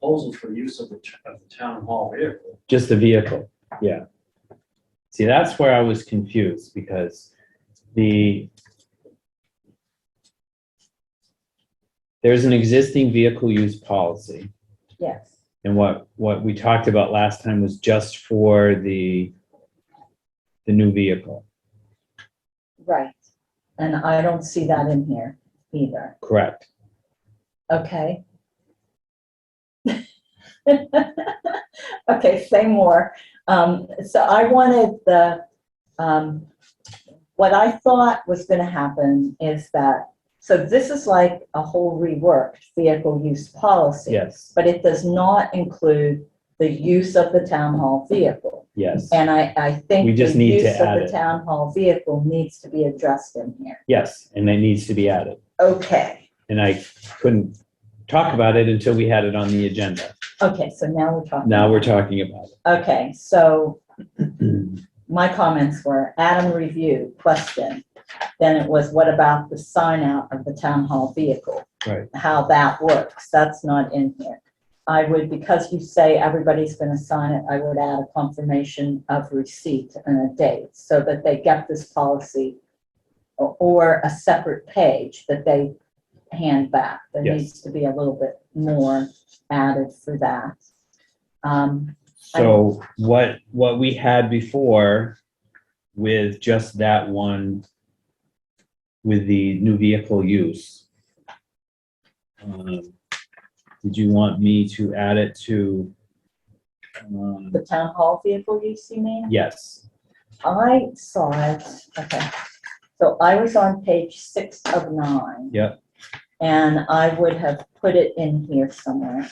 proposal for use of the, t- of the town hall vehicle. Just the vehicle, yeah. See, that's where I was confused because the there's an existing vehicle use policy. Yes. And what, what we talked about last time was just for the the new vehicle, Right. And I don't see that in here either. correct? Okay. Okay, say more. Um, so I wanted the, um, what I thought was gonna happen is that, so this is like a whole reworked vehicle use policy. Yes, But it does not include the use of the town hall vehicle. yes, And I, I think. We just the need to use of add the it. Town hall vehicle needs to be addressed in here. yes, and it needs to be added. Okay, And I couldn't talk about it until we had it on the agenda. okay, so now we're talking. Now we're talking about Okay, so it. my comments were Adam review, question. Then it was, what about the sign out of the town hall vehicle? Right. How that works, that's not in here. I would, because you say everybody's gonna sign it, I would add a confirmation of receipt and a date so that they get this policy o- or a separate page that they hand back. There Yes. needs to be a little bit more added for that. Um, So what, what we had before with just that one, with the new vehicle use. um, Did you want me to add it to? um, the town hall vehicle use, you mean? Yes, I saw it, okay. So I was on page six of nine. Yep. And I would have put it in here somewhere,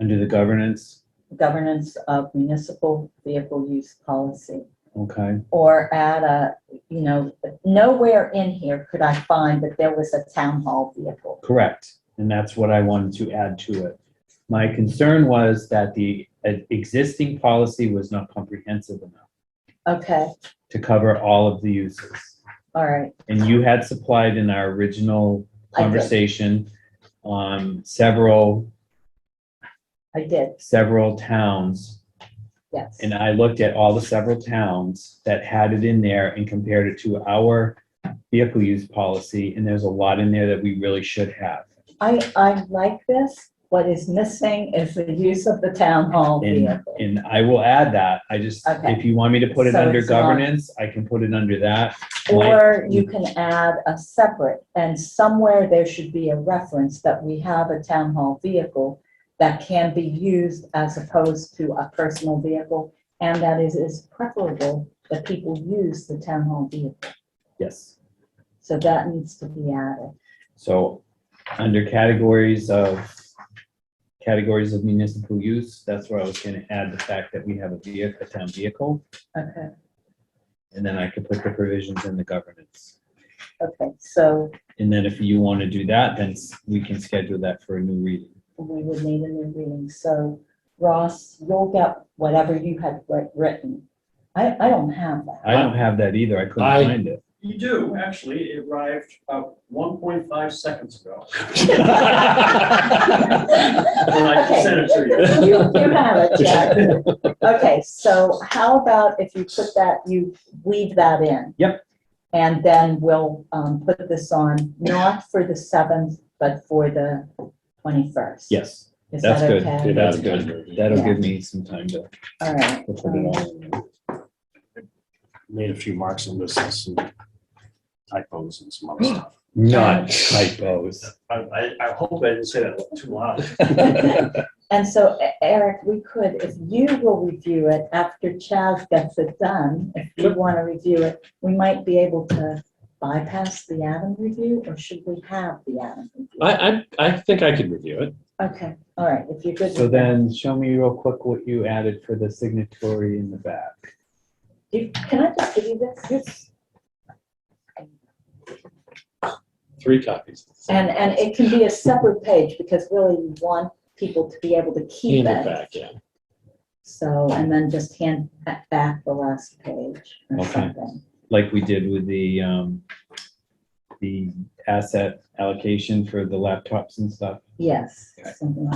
under the governance, governance of municipal vehicle use policy. okay, Or add a, you know, nowhere in here could I find that there was a town hall vehicle. correct. And that's what I wanted to add to it. My concern was that the uh, existing policy was not comprehensive enough Okay, to cover all of the uses. all right, And you had supplied in our original I did. conversation, um, several, I did, several towns. yes. And I looked at all the several towns that had it in there and compared it to our vehicle use policy. And there's a lot in there that we really should have. I, I like this. What is missing is the use of the town hall And, vehicle. and I will add that. I just, Okay. if you want me to put it So under it's not- governance, I can put it under that. Like- Or you can add a separate, and somewhere there should be a reference that we have a town hall vehicle that can be used as opposed to a personal vehicle, and that is, is preferable that people use the town hall vehicle. Yes. So that needs to be added. So under categories of, categories of municipal use, that's where I was gonna add the fact that we have a vehicle, a town vehicle, Okay. and then I could put the provisions in the governance. Okay, so And then if you want to do that, then s- we can schedule that for a new reading. we would need a new reading. So Ross, you'll get whatever you had writ- written. I, I don't have that. I don't have that either. I couldn't I- find it. You do, actually, it arrived about one point five seconds ago. When I Okay. sent it to you. You, you have it, Jack. Okay, so how about if you put that, you weave that in? Yep. And then we'll, um, put this on, not for the seventh, but for the twenty-first. Yes, Is that's that good. okay? That's good. That'll give me some time to All right. to put it all in. there. Made a few marks and misses and typos and some other stuff. Not typos. I, I, I hope I didn't say that too loud. And so E- Eric, we could, if you will review it after Chaz gets it done, if you want to review it, we might be able to bypass the Adam review, or should we have the Adam? review? I, I, I think I could review it. Okay, all right, if you're good. So with that. then show me real quick what you added for the signatory in the back. You- Can I just give you this? Yes. Three copies. And, and it can be a separate page because really you want people to be able to keep Hand it it. back, yeah. So, and then just hand that back the last page or Okay. something. like we did with the, um, the asset allocation for the laptops and stuff. Yes, Okay. something like